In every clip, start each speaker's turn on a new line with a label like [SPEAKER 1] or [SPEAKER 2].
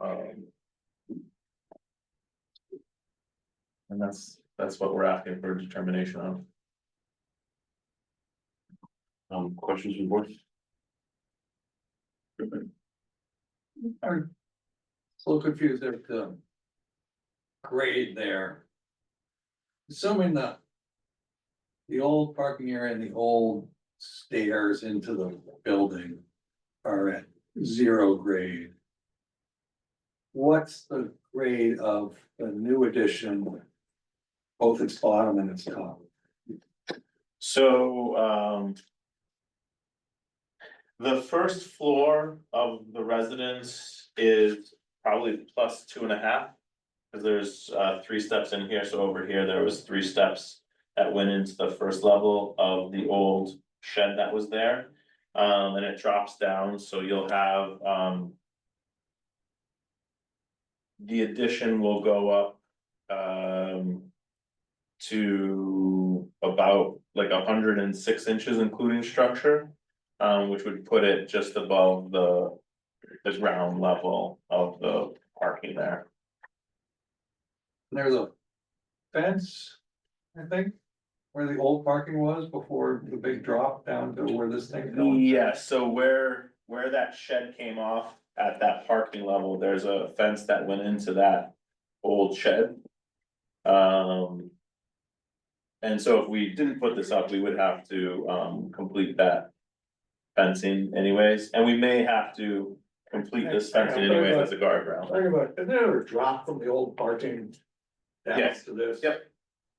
[SPEAKER 1] Um. And that's, that's what we're asking for determination on.
[SPEAKER 2] Um, questions from board?
[SPEAKER 3] I'm a little confused as to grade there. Assuming that the old parking area and the old stairs into the building are at zero grade. What's the grade of the new addition, both its bottom and its top?
[SPEAKER 1] So, um. The first floor of the residence is probably plus two and a half. Cause there's, uh, three steps in here, so over here, there was three steps that went into the first level of the old shed that was there. Um, and it drops down, so you'll have, um. The addition will go up, um to about like hundred and six inches including structure. Um, which would put it just above the, the ground level of the parking there.
[SPEAKER 3] There's a fence, I think, where the old parking was before the big drop down to where this thing goes.
[SPEAKER 1] Yeah, so where, where that shed came off at that parking level, there's a fence that went into that old shed. Um. And so if we didn't put this up, we would have to, um, complete that fencing anyways, and we may have to complete this fencing anyways as a guardrail.
[SPEAKER 3] Talking about, is there a drop from the old parking down
[SPEAKER 1] Yes.
[SPEAKER 3] to this?
[SPEAKER 1] Yep.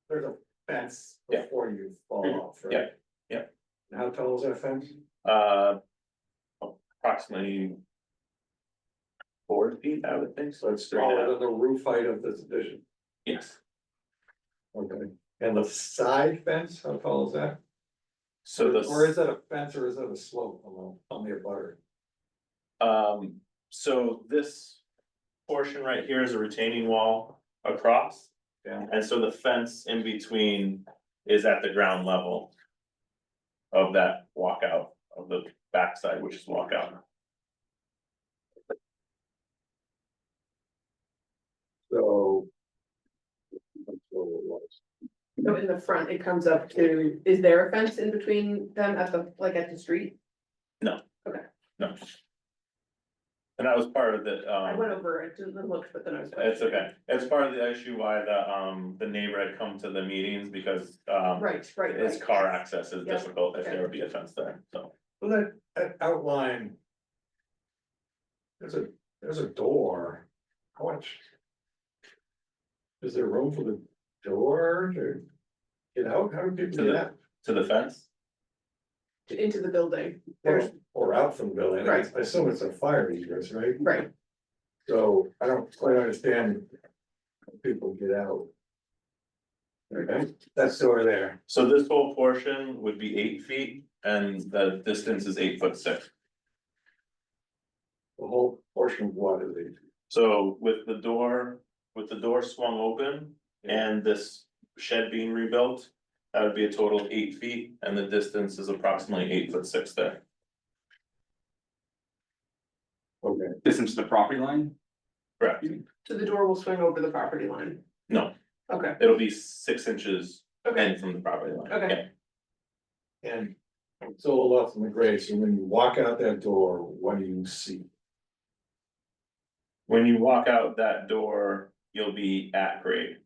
[SPEAKER 3] There's a fence
[SPEAKER 1] Yeah.
[SPEAKER 3] before you fall
[SPEAKER 1] Mhm.
[SPEAKER 3] off, right?
[SPEAKER 1] Yep. Yep.
[SPEAKER 3] And how tall is that fence?
[SPEAKER 1] Uh. Approximately. Four feet, I would think, so it's three and a
[SPEAKER 3] Taller
[SPEAKER 1] half,
[SPEAKER 3] than the roof height of this addition.
[SPEAKER 1] yes,
[SPEAKER 3] Okay. And the side fence, how tall is that?
[SPEAKER 1] so
[SPEAKER 3] Or is
[SPEAKER 1] the,
[SPEAKER 3] that a fence or is that a slope along, on the abutter?
[SPEAKER 1] um, so this. Portion right here is a retaining wall across.
[SPEAKER 3] Yeah.
[SPEAKER 1] And so the fence in between is at the ground level. Of that walkout of the backside, which is walkout,
[SPEAKER 3] So. that's what it was.
[SPEAKER 4] So in the front, it comes up to, is there a fence in between them at the, like at the street?
[SPEAKER 1] no. And that was part of the, um.
[SPEAKER 4] I went over, it didn't look, but then I was.
[SPEAKER 1] It's okay, it's part of the issue why the, um, the neighbor had come to the meetings because, um,
[SPEAKER 4] Right, right.
[SPEAKER 1] his
[SPEAKER 4] right.
[SPEAKER 1] car access is
[SPEAKER 4] Yeah,
[SPEAKER 1] difficult if
[SPEAKER 4] okay.
[SPEAKER 1] there would be a fence there, so.
[SPEAKER 3] Well, that, that outline. There's a, there's a door, how much? Is there room for the door to get out, how do people
[SPEAKER 1] To
[SPEAKER 3] get
[SPEAKER 1] the-
[SPEAKER 3] out?
[SPEAKER 1] To the fence,
[SPEAKER 4] Into the building, there's,
[SPEAKER 3] Or out from the building, I I assume it's a fire egress, right?
[SPEAKER 4] right,
[SPEAKER 3] So I don't quite understand. how People get out. Okay, that's door there,
[SPEAKER 1] so this whole portion would be eight feet and the distance is eight foot six.
[SPEAKER 3] the whole portion of what is it?
[SPEAKER 1] So with the door, with the door swung open and this shed being rebuilt. That would be a total of eight feet and the distance is approximately eight foot six there,
[SPEAKER 3] Okay,
[SPEAKER 2] Distance to the property line?
[SPEAKER 1] correct?
[SPEAKER 4] so the door will swing over the property line.
[SPEAKER 1] No.
[SPEAKER 4] Okay,
[SPEAKER 1] It'll be six inches
[SPEAKER 4] okay,
[SPEAKER 1] in from the property line.
[SPEAKER 4] Okay.
[SPEAKER 1] Yeah.
[SPEAKER 3] and it's a little off in the grade, so when you walk out that door, what do you see?
[SPEAKER 1] When you walk out that door, you'll be at grade,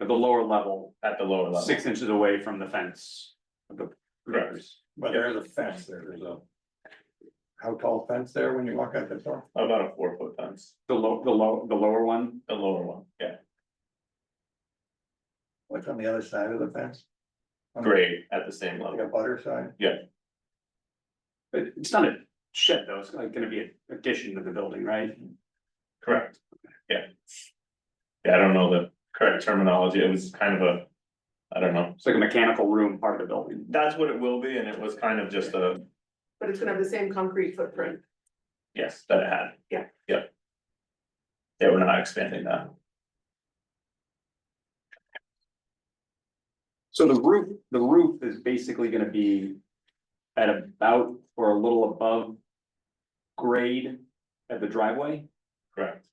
[SPEAKER 2] At the lower level,
[SPEAKER 1] at the lower level.
[SPEAKER 2] six inches away from the fence. of the-
[SPEAKER 1] Correct.
[SPEAKER 3] But there is a fence there, there's a. How tall fence there when you walk out the door?
[SPEAKER 1] About a four foot fence,
[SPEAKER 2] The low, the low, the lower one,
[SPEAKER 1] the lower one, yeah,
[SPEAKER 3] What's on the other side of the fence? On the-
[SPEAKER 1] grade at the same
[SPEAKER 3] Like a
[SPEAKER 1] level.
[SPEAKER 3] butter side?
[SPEAKER 2] but it's not a shed though, it's like gonna be an addition to the building, right?
[SPEAKER 1] Correct, yeah. Yeah, I don't know the correct terminology, it was kind of a, I don't know.
[SPEAKER 2] It's like a mechanical room part of the building.
[SPEAKER 1] That's what it will be, and it was kind of just a,
[SPEAKER 4] but it's gonna have the same concrete footprint,
[SPEAKER 1] yes, that it had.
[SPEAKER 4] Yeah.
[SPEAKER 1] Yeah. Yeah, we're not expanding that.
[SPEAKER 2] So the roof, the roof is basically gonna be at about or a little above grade at the driveway?
[SPEAKER 1] Correct.